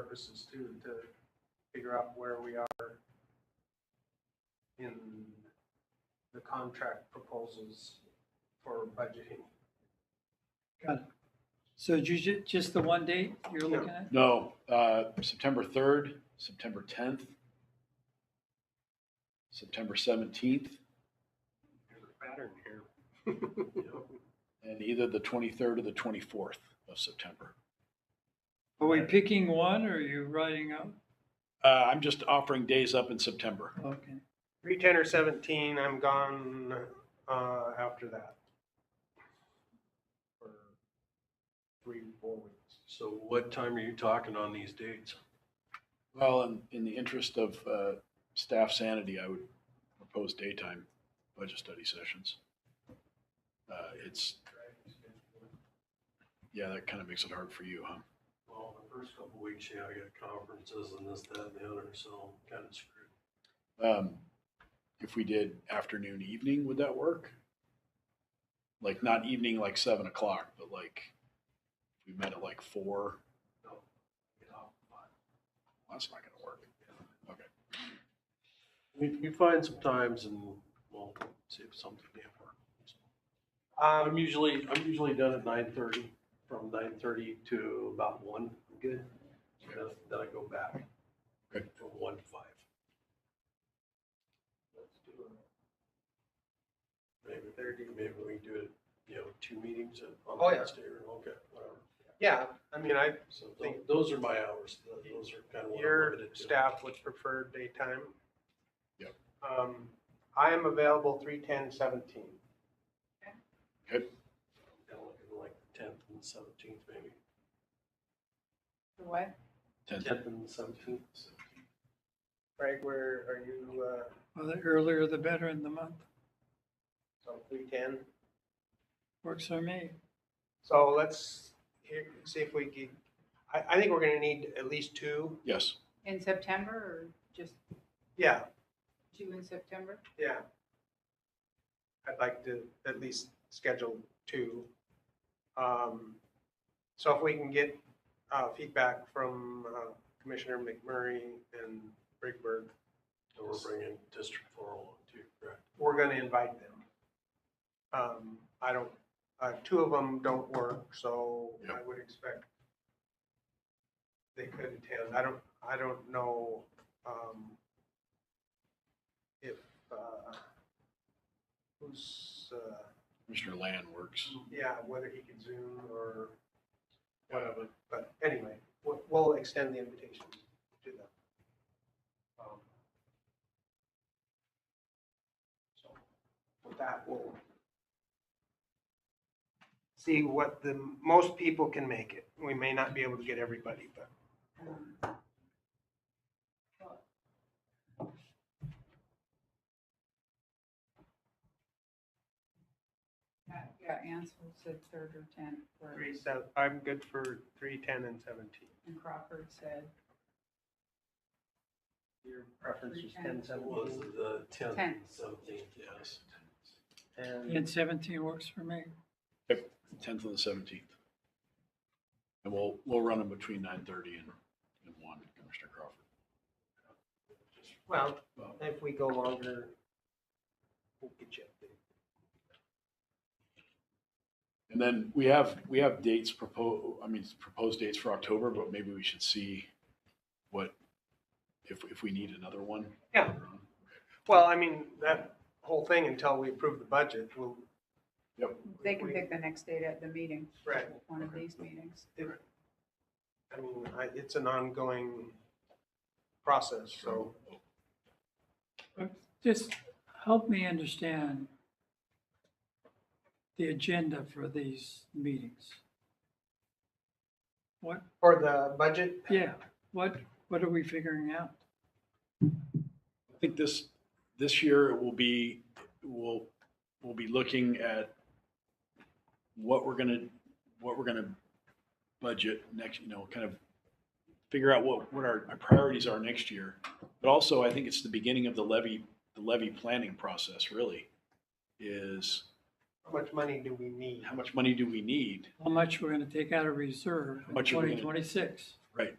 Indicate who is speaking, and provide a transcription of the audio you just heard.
Speaker 1: purposes too, to figure out where we are in the contract proposals for budgeting.
Speaker 2: Got it. So ju- ju- just the one date you're looking at?
Speaker 3: No, uh, September 3rd, September 10th, September 17th,
Speaker 1: There's a pattern here.
Speaker 3: and either the 23rd or the 24th of September.
Speaker 2: Are we picking one or are you writing up?
Speaker 3: Uh, I'm just offering days up in September.
Speaker 2: Okay.
Speaker 1: Three ten or seventeen, I'm gone, uh, after that. For three, four weeks.
Speaker 4: So what time are you talking on these dates?
Speaker 3: Well, in, in the interest of uh, staff sanity, I would propose daytime budget study sessions. Uh, It's, yeah, that kind of makes it hard for you, huh?
Speaker 4: Well, the first couple weeks, yeah, I got conferences and this, that, and the other, so I'm kind of screwed.
Speaker 3: Um, If we did afternoon, evening, would that work? Like not evening, like seven o'clock, but like we met at like four.
Speaker 4: you know, but
Speaker 3: That's not gonna work.
Speaker 4: We, we find some times and we'll see if something can work. I'm
Speaker 1: Um,
Speaker 4: usually, I'm usually done at nine thirty, from nine thirty to about one. Good. Then then I go back.
Speaker 3: Good.
Speaker 4: From one to five. Let's do it. Maybe thirty, maybe we do it, you know, two meetings at- on
Speaker 1: Oh, yeah.
Speaker 4: Wednesday or, okay, whatever.
Speaker 1: yeah, I mean, I,
Speaker 4: So tho-
Speaker 1: Think-
Speaker 4: those are my hours. Tho- Those are kind of what I'm
Speaker 1: Your
Speaker 4: limited to.
Speaker 1: staff would prefer daytime?
Speaker 3: Yep.
Speaker 1: Um, I am available three, ten, seventeen.
Speaker 4: Kind of looking Like the tenth and seventeenth, maybe.
Speaker 5: What?
Speaker 3: Tenth,
Speaker 4: Tenth and seventeenth.
Speaker 1: Greg, where are you, uh,
Speaker 2: Well, the earlier the better in the month.
Speaker 1: so three, ten?
Speaker 2: Works for me.
Speaker 1: So let's hear, see if we can, I, I think we're gonna need at least two.
Speaker 3: yes.
Speaker 5: In September or just
Speaker 1: Yeah,
Speaker 5: two in September?
Speaker 1: yeah. I'd like to at least schedule two. Um, so if we can get, uh, feedback from, uh, Commissioner McMurray and Brigberg,
Speaker 4: And we're bringing District Four along too, correct?
Speaker 1: we're gonna invite them. Um, I don't, uh, two of them don't work, so I would expect they could attend. I don't, I don't know, um, if, uh, who's, uh,
Speaker 3: Mr. Land works.
Speaker 1: yeah, whether he can Zoom or whatever, but anyway, we'll, we'll extend the invitation to them. Um, So with that, we'll see what the, most people can make it. We may not be able to get everybody, but
Speaker 5: Uh, Yeah, Ansel said third or tenth, or-
Speaker 1: three, seven, I'm good for three, ten, and seventeen.
Speaker 5: and Crawford said
Speaker 1: Your preference is
Speaker 5: 10,
Speaker 4: It was the tenth and
Speaker 5: Tenth.
Speaker 4: seventeenth, yes.
Speaker 2: And 17 works for me.
Speaker 3: Tenth and the seventeenth. And we'll, we'll run them between nine thirty and, and one, Commissioner Crawford.
Speaker 1: Well, if we go longer, we'll get you updated.
Speaker 3: And then we have, we have dates proposed, I mean, proposed dates for October, but maybe we should see what, if, if we need another one.
Speaker 1: Yeah. Well, I mean, that whole thing until we approve the budget, will
Speaker 5: they can pick the next date at the meeting,
Speaker 1: Right.
Speaker 5: one of these meetings.
Speaker 1: I mean, I, it's an ongoing process, so.
Speaker 2: Just help me understand the agenda for these meetings. What,
Speaker 1: For the budget?
Speaker 2: yeah, what, what are we figuring out?
Speaker 3: I think this, this year it will be, we'll, we'll be looking at what we're gonna, what we're gonna budget next, you know, kind of figure out what, what our our priorities are next year. But also, I think it's the beginning of the levy, the levy planning process, really, is
Speaker 1: How much money do we need?
Speaker 3: how much money do we need?
Speaker 2: How much we're going to take out of reserve
Speaker 3: How
Speaker 2: in
Speaker 3: much are we gonna-
Speaker 2: 2026?
Speaker 3: Right,